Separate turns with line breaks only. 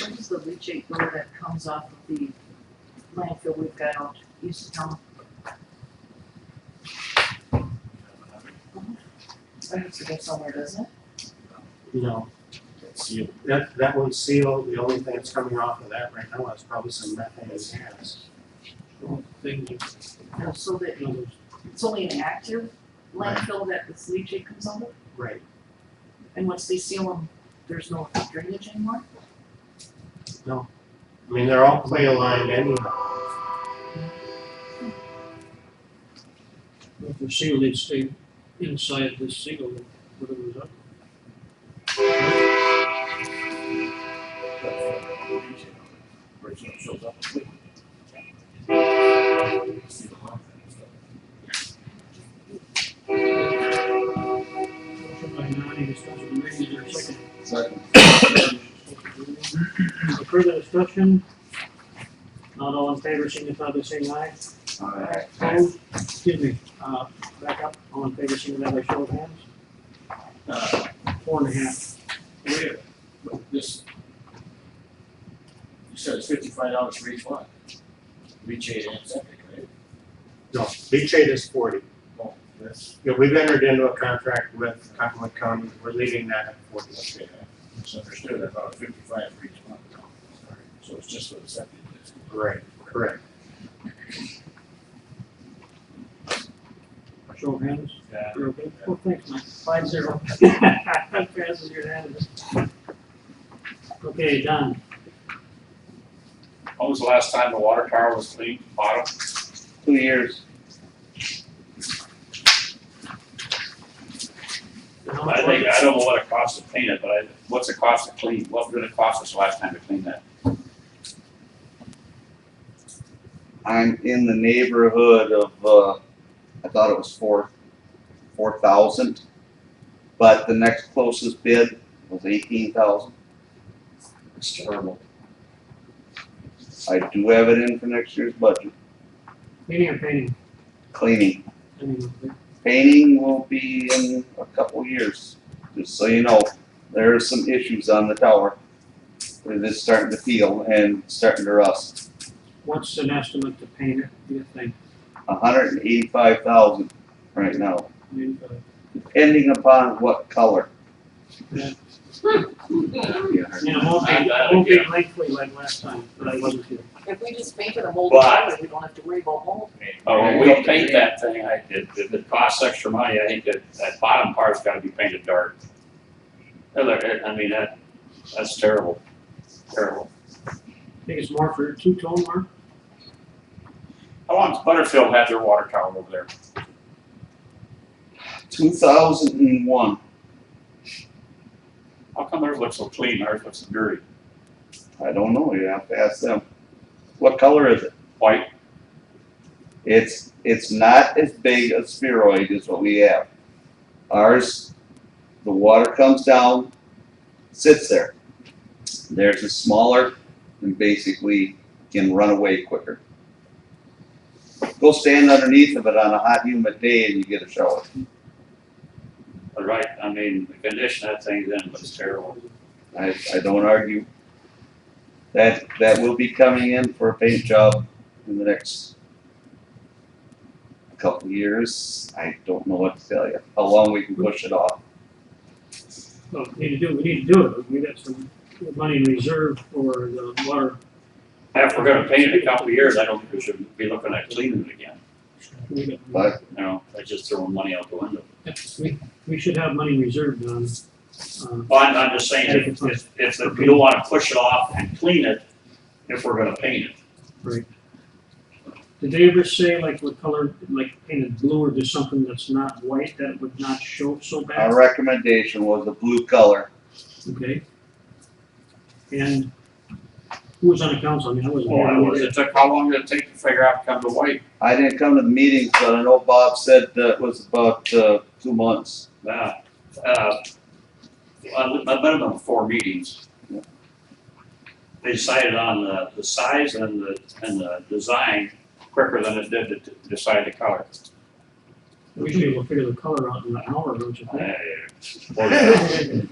when's the leachate door that comes off of the landfill we've got out east of town? It has to go somewhere, doesn't it?
No. It's you, that, that one's sealed, the only thing that's coming off of that right now is probably some methane gas.
Thing you-
No, So that it's only an active landfill that this leachate comes out of?
Right,
And once they seal them, there's no drainage anymore?
I mean, they're all clay lined anyhow.
if they're sealed, they'd stay inside this seal, whatever was up.
Where it shows up. See the lump and stuff.
Motion by Nani, discussion by Reagan, is there a second?
Second.
Any Further discussion? Not all in favor, signify by saying aye.
Alright.
Opposed? Excuse me, uh, back up, all in favor, signify by show of hands.
Uh,
Four and a half.
where, but this. You said it's fifty-five dollars for each one. Reach eight and septic, right?
No, leachate is forty.
Oh, that's.
Yeah, we've entered into a contract with Cottonwood County, we're leaving that at forty.
Okay, I misunderstood, I thought fifty-five for each one. Sorry. So it's just for the septic.
Right, correct.
Show of hands.
Yeah.
You're okay? Well, thanks, Mike. Five zero. Passes unanimous. Okay, Don,
When was the last time the water tower was cleaned, bottom?
two years.
how much was
I think, I
it?
don't know what it costs to clean it, but I, what's it cost to clean, what did it cost us last time to clean that?
I'm in the neighborhood of, uh, I thought it was four, four thousand. But the next closest bid was eighteen thousand. It's terrible. I do have it in for next year's budget.
Cleaning or painting?
Cleaning,
I mean,
painting will be in a couple years, just so you know. There are some issues on the tower. It is starting to peel and starting to rust.
what's an estimate to paint it, do you think?
hundred and eighty-five thousand right now.
I mean, uh,
depending upon what color.
Yeah.
Yeah.
You know, it won't be,
Not bad
it won't be
idea.
lengthy like last time, but I wasn't here.
If we just painted a mold
But-
color, we don't have to worry about mold.
Oh, when we paint that thing, I, it, it it costs extra money, I think that, that bottom part's gotta be painted dark. I like it. uh, I mean, that, that's terrible, terrible.
I think it's more for two-tone mark,
How long's Butterfield had their water tower over there?
Two thousand and one,
How come theirs looks so clean, ours looks dirty?
I don't know, you have to ask them. What color is it?
White,
It's, it's not as big a spheroid as what we have. Ours, the water comes down, sits there. Theirs is smaller and basically can run away quicker. Go stand underneath of it on a hot humid day and you get a shower.
But right, I mean, the condition that thing's in was terrible.
I, I don't argue. That, that will be coming in for a paint job in the next couple of years. I don't know what to tell you, how long we can push it off.
well, we need to do, we need to do it, we got some money in reserve for the water,
If we're gonna paint it in a couple of years, I don't think we should be looking at cleaning it again,
we got.
But
you know, that's just throwing money out the window.
We, we should have money reserved on, uh,
Well, I'm, I'm just saying, if, if, if the- we don't wanna push it off and clean it, if we're gonna paint it.
did they ever say like what color, like painted blue or just something that's not white that would not show so bad?
our recommendation was a blue color.
Okay. And who was on the council? I mean, I wasn't.
Oh,
Well,
here.
I was, it took, how long did it take to figure out to come to white?
I didn't come to meetings, but I know Bob said that was about, uh, two months.
Uh, uh, a a minimum of four meetings. They decided on the, the size and the, and the design quicker than it did to decide the color.
Usually we'll figure the color out in an hour, don't you
Uh,
think?
or-